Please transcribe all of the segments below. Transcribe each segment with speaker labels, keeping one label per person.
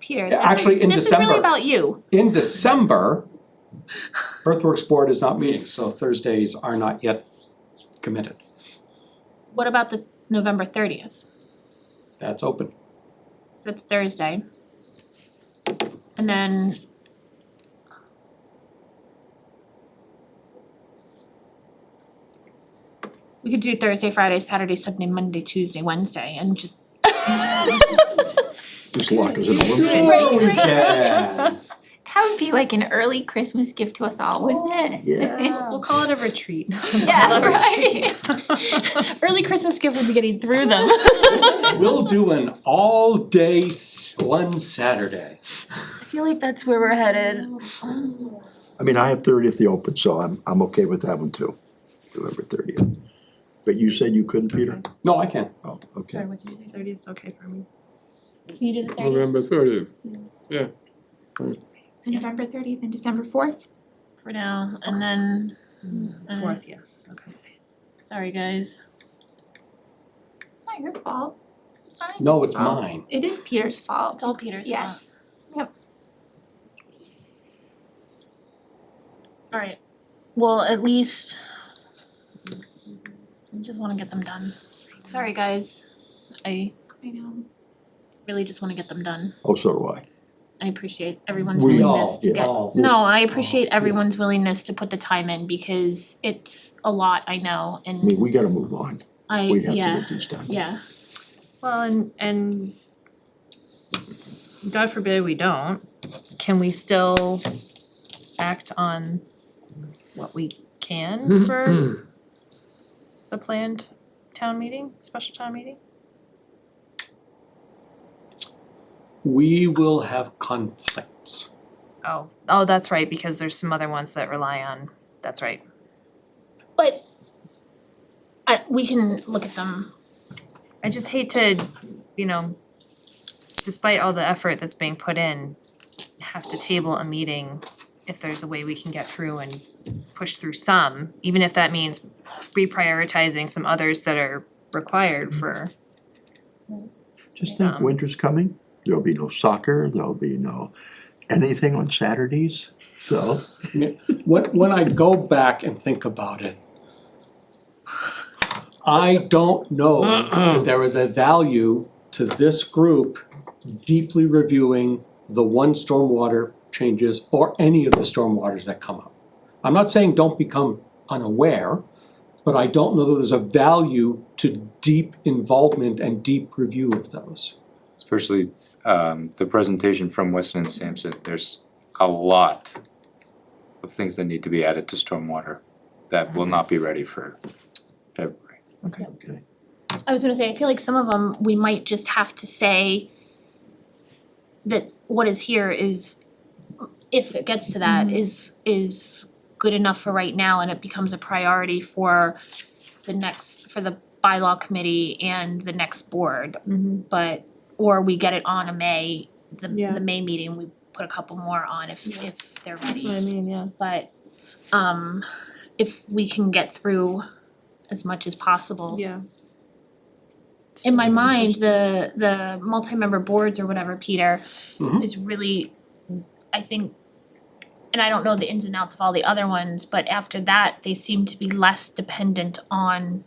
Speaker 1: Peter,
Speaker 2: Yeah,
Speaker 1: this is-
Speaker 2: actually, in
Speaker 1: This is really
Speaker 2: December.
Speaker 1: about you.
Speaker 2: In December, Earthworks Board is not meeting, so Thursdays are not yet committed.
Speaker 1: What about the November thirtieth?
Speaker 2: That's open.
Speaker 1: So it's Thursday. And then we could do Thursday, Friday, Saturday, Sunday, Monday, Tuesday, Wednesday, and just
Speaker 3: This lock is in aluminum.
Speaker 4: Right.
Speaker 2: Yeah.
Speaker 4: That would be like an early Christmas gift to us all, wouldn't it?
Speaker 3: Yeah.
Speaker 1: we'll call it a retreat.
Speaker 4: Yeah, right.
Speaker 1: Early Christmas gift would be getting through them.
Speaker 2: We'll do an all-day s- one Saturday.
Speaker 4: I feel like that's where we're headed.
Speaker 3: I mean, I have thirtieth the open, so I'm, I'm okay with that one too, November thirtieth. But you said you couldn't, Peter?
Speaker 2: No, I can.
Speaker 3: Oh, okay.
Speaker 5: what did you say, thirty is okay for me?
Speaker 1: Can you do the thirtieth
Speaker 6: November thirtieth.
Speaker 4: So November thirtieth and December fourth?
Speaker 1: for now, and then, uh,
Speaker 5: Fourth, yes, okay.
Speaker 1: sorry guys.
Speaker 4: It's not your fault.
Speaker 1: Sorry.
Speaker 2: No, Oh, it's mine.
Speaker 4: It is Peter's fault.
Speaker 1: It's all Peter's
Speaker 4: Yes.
Speaker 1: Alright, well, at least I just wanna get them done. Sorry, guys. I
Speaker 4: I know.
Speaker 1: really just wanna get them done.
Speaker 3: Oh, so do I.
Speaker 1: I appreciate everyone's
Speaker 2: We
Speaker 1: willingness
Speaker 2: all,
Speaker 1: to
Speaker 3: yeah.
Speaker 1: get.
Speaker 2: all.
Speaker 1: No, I appreciate
Speaker 2: Yeah.
Speaker 1: everyone's willingness to put the time in because it's a lot, I know,
Speaker 3: I mean,
Speaker 1: and
Speaker 3: we gotta move on.
Speaker 1: I,
Speaker 3: We have to
Speaker 1: yeah,
Speaker 3: get these done.
Speaker 1: yeah.
Speaker 5: Well, and, and God forbid we don't, can we still act on what we can for the planned town meeting, special town meeting?
Speaker 2: We will have conflicts.
Speaker 5: Oh, oh, that's right, because there's some other ones that rely on, that's right.
Speaker 1: But I, we can look at them.
Speaker 5: I just hate to, you know, despite all the effort that's being put in, have to table a meeting if there's a way we can get through and push through some, even if that means reprioritizing some others that are required for
Speaker 3: Just think,
Speaker 5: Some.
Speaker 3: winter's coming, there'll be no soccer, there'll be no anything on Saturdays, so.
Speaker 2: When, when I go back and think about it, I don't know that there is a value to this group deeply reviewing the one stormwater changes or any of the stormwaters that come up. I'm not saying don't become unaware, but I don't know that there's a value to deep involvement and deep review of those.
Speaker 7: especially um the presentation from Weston and Sampson, there's a lot of things that need to be added to stormwater that will not be ready for February.
Speaker 3: Okay.
Speaker 1: I was gonna say, I feel like some of them, we might just have to say that what is here is, if it gets to that,
Speaker 8: Mm-hmm.
Speaker 1: is is good enough for right now and it becomes a priority for the next, for the bylaw committee and the next board. But, or we get it on a May, the
Speaker 8: Mm-hmm. Yeah.
Speaker 1: the May meeting, we put a couple more on if if they're ready.
Speaker 8: That's what I mean, yeah.
Speaker 1: But um if we can get through as much as possible
Speaker 8: Yeah.
Speaker 1: in my mind, the the multi-member boards or whatever, Peter,
Speaker 2: Mhm.
Speaker 1: is really, I think, and I don't know the ins and outs of all the other ones, but after that, they seem to be less dependent on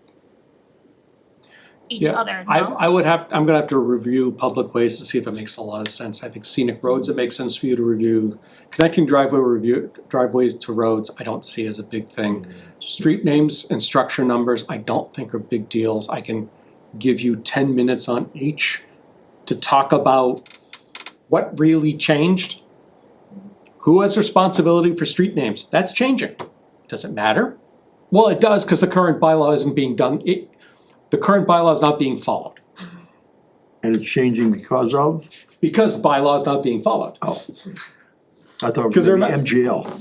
Speaker 1: each
Speaker 2: Yeah,
Speaker 1: other,
Speaker 2: I
Speaker 1: no?
Speaker 2: I would have, I'm gonna have to review public ways to see if it makes a lot of sense, I think scenic roads, it makes sense for you to review. Connecting driveway review, driveways to roads, I don't see as a big thing. Street names and structure numbers, I don't think are big deals, I can give you ten minutes on each to talk about what really changed. Who has responsibility for street names, that's changing, does it matter? Well, it does, cause the current bylaw isn't being done, it, the current bylaw is not being followed
Speaker 3: And it's changing because of,
Speaker 2: because bylaw is not being followed.
Speaker 3: oh. I thought it
Speaker 2: 'Cause
Speaker 3: was
Speaker 2: they're
Speaker 3: gonna be
Speaker 2: not-
Speaker 3: MGL.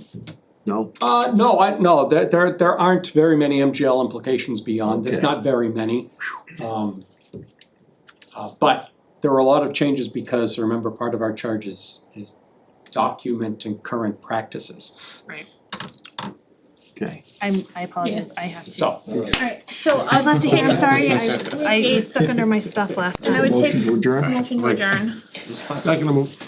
Speaker 3: No,
Speaker 2: Uh, no, I, no, there, there, there aren't very many MGL implications beyond, there's
Speaker 3: Okay.
Speaker 2: not very many. Um, uh, but there were a lot of changes because, remember, part of our charge is, is documenting current practices.
Speaker 3: okay.
Speaker 8: I'm, I apologize, I have to.
Speaker 2: So,
Speaker 8: Alright, so I'll have to, I'm sorry, I was, I was stuck under my stuff last time.
Speaker 1: And I would take
Speaker 3: Motion to adjourn?
Speaker 1: motion to adjourn.
Speaker 6: Not gonna move.